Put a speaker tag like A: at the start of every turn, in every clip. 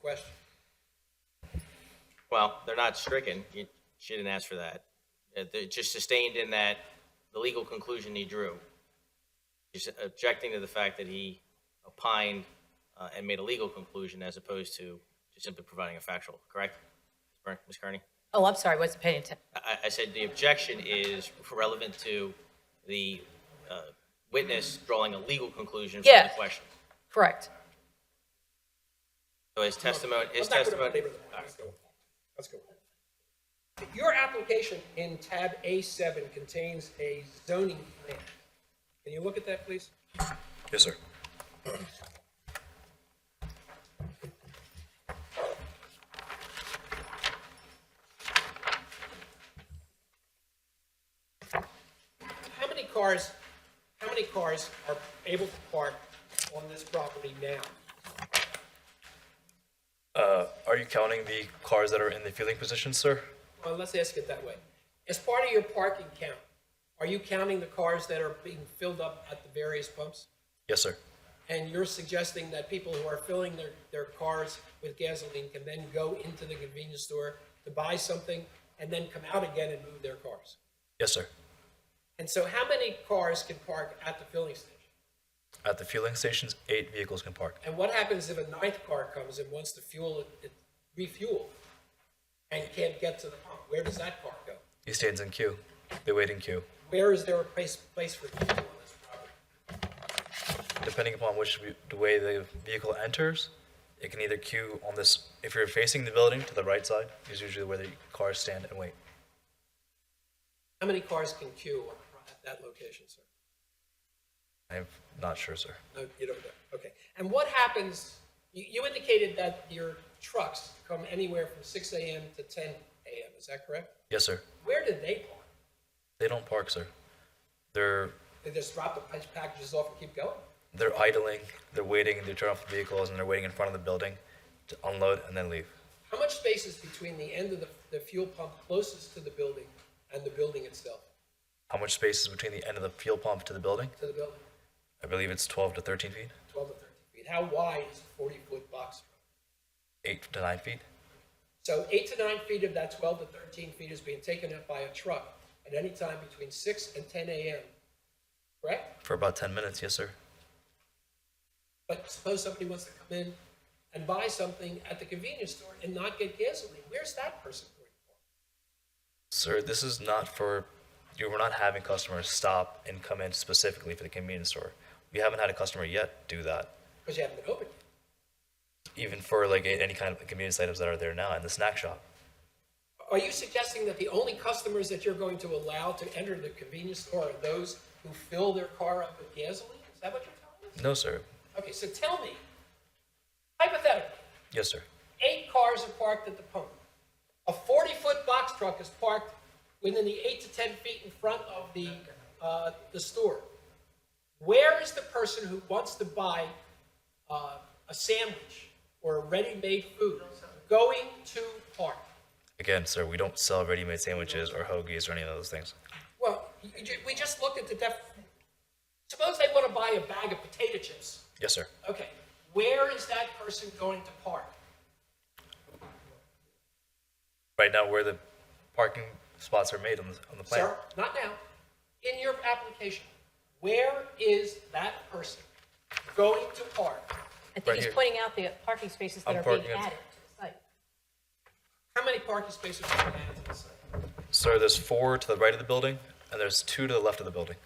A: question.
B: Well, they're not stricken. You- She didn't ask for that. Uh, They're just sustained in that the legal conclusion he drew. She's objecting to the fact that he opined uh, and made a legal conclusion as opposed to just simply providing a factual, correct? Ms. Kearney?
C: Oh, I'm sorry, wasn't paying attention.
B: I, I said the objection is relevant to the uh, witness drawing a legal conclusion from the
C: Yes.
B: question.
C: Correct.
B: So his testimony,
A: Let's
B: his
A: not go to
B: testimony.
A: belabor the- Let's go. Let's go. Your application in tab A7 contains a zoning plan. Can you look at that, please?
D: Yes, sir.
A: How many cars, how many cars are able to park on this property now?
D: Uh, Are you counting the cars that are in the fielding position, sir?
A: Well, let's ask it that way. As part of your parking count, are you counting the cars that are being filled up at the various pumps?
D: Yes, sir.
A: And you're suggesting that people who are filling their, their cars with gasoline can then go into the convenience store to buy something and then come out again and move their cars?
D: Yes, sir.
A: And so how many cars can park at the filling station?
D: At the fueling stations, eight vehicles can park.
A: And what happens if a ninth car comes and wants to fuel, it refuel and can't get to the pump? Where does that car go?
D: He stands in queue. They wait in queue.
A: Where is there a place, place for people on this property?
D: Depending upon which v- the way the vehicle enters, it can either queue on this. If you're facing the building to the right side, is usually where the cars stand and wait.
A: How many cars can queue on- at that location, sir?
D: I'm not sure, sir.
A: No, you don't know. Okay. And what happens, you, you indicated that your trucks come anywhere from six AM to ten AM, is that correct?
D: Yes, sir.
A: Where do they park?
D: They don't park, sir. They're
A: They just drop the pack- packages off and keep going?
D: they're idling. They're waiting. They turn off the vehicles and they're waiting in front of the building to unload and then leave.
A: How much space is between the end of the, the fuel pump closest to the building and the building itself,
D: How much space is between the end of the fuel pump to the building?
A: to the building?
D: I believe it's 12 to 13 feet,
A: Twelve to thirteen feet. How wide is a forty-foot box truck?
D: 8 to 9 feet.
A: So eight to nine feet of that twelve to thirteen feet is being taken up by a truck at any time between six and ten AM, correct?
D: For about 10 minutes, yes, sir.
A: But suppose somebody wants to come in and buy something at the convenience store and not get gasoline, where's that person going for?
D: Sir, this is not for, you we're not having customers stop and come in specifically for the convenience store. We haven't had a customer yet do that,
A: Because you haven't been open. yet.
D: even for like a- any kind of convenience items that are there now in the snack shop.
A: Are you suggesting that the only customers that you're going to allow to enter the convenience store are those who fill their car up with gasoline? Is that what you're telling us?
D: No, sir.
A: Okay, so tell me, hypothetically,
D: Yes, sir.
A: eight cars are parked at the pump. A 40-foot box truck is parked within the eight to 10 feet in front of the, uh, the store. Where is the person who wants to buy uh, a sandwich or a ready-made food going to park?
D: Again, sir, we don't sell ready-made sandwiches or hoagies or any of those things.
A: Well, you- you ju- we just looked at the def, suppose they want to buy a bag of potato chips.
D: Yes, sir.
A: Okay, where is that person going to park?
D: Right now, where the parking spots are made on the, on the plan.
A: Sir, not now. In your application, where is that person going to park?
C: I
D: Right
C: think he's
D: here.
C: pointing out the parking spaces that
D: I'm
C: are being
D: parking at-
C: added to the site.
A: How many parking spaces are added to the site?
D: Sir, there's four to the right of the building, and there's two to the left of the building.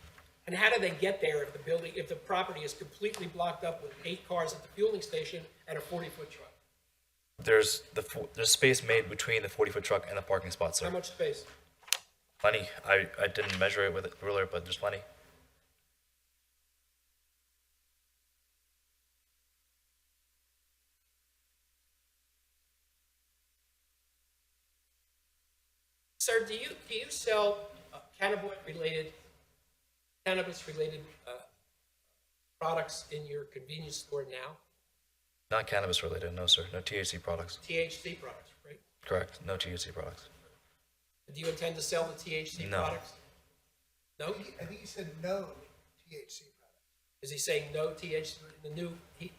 A: And how do they get there if the building, if the property is completely blocked up with eight cars at the fueling station and a 40-foot truck?
D: There's the fo- there's space made between the 40 foot truck and the parking spot,
A: How
D: sir.
A: much space?
D: Plenty. I, I didn't measure it with a ruler, but there's plenty.
A: Sir, do you, do you sell uh, cannabis-related, cannabis-related uh, products in your convenience store now?
D: Not cannabis related, no sir. No THC products.
A: THC products, right?
D: Correct. No THC products.
A: Do you intend to sell the THC
D: No.
A: products? No?
E: I think you said no THC product.
A: Is he saying no THC, the new, he-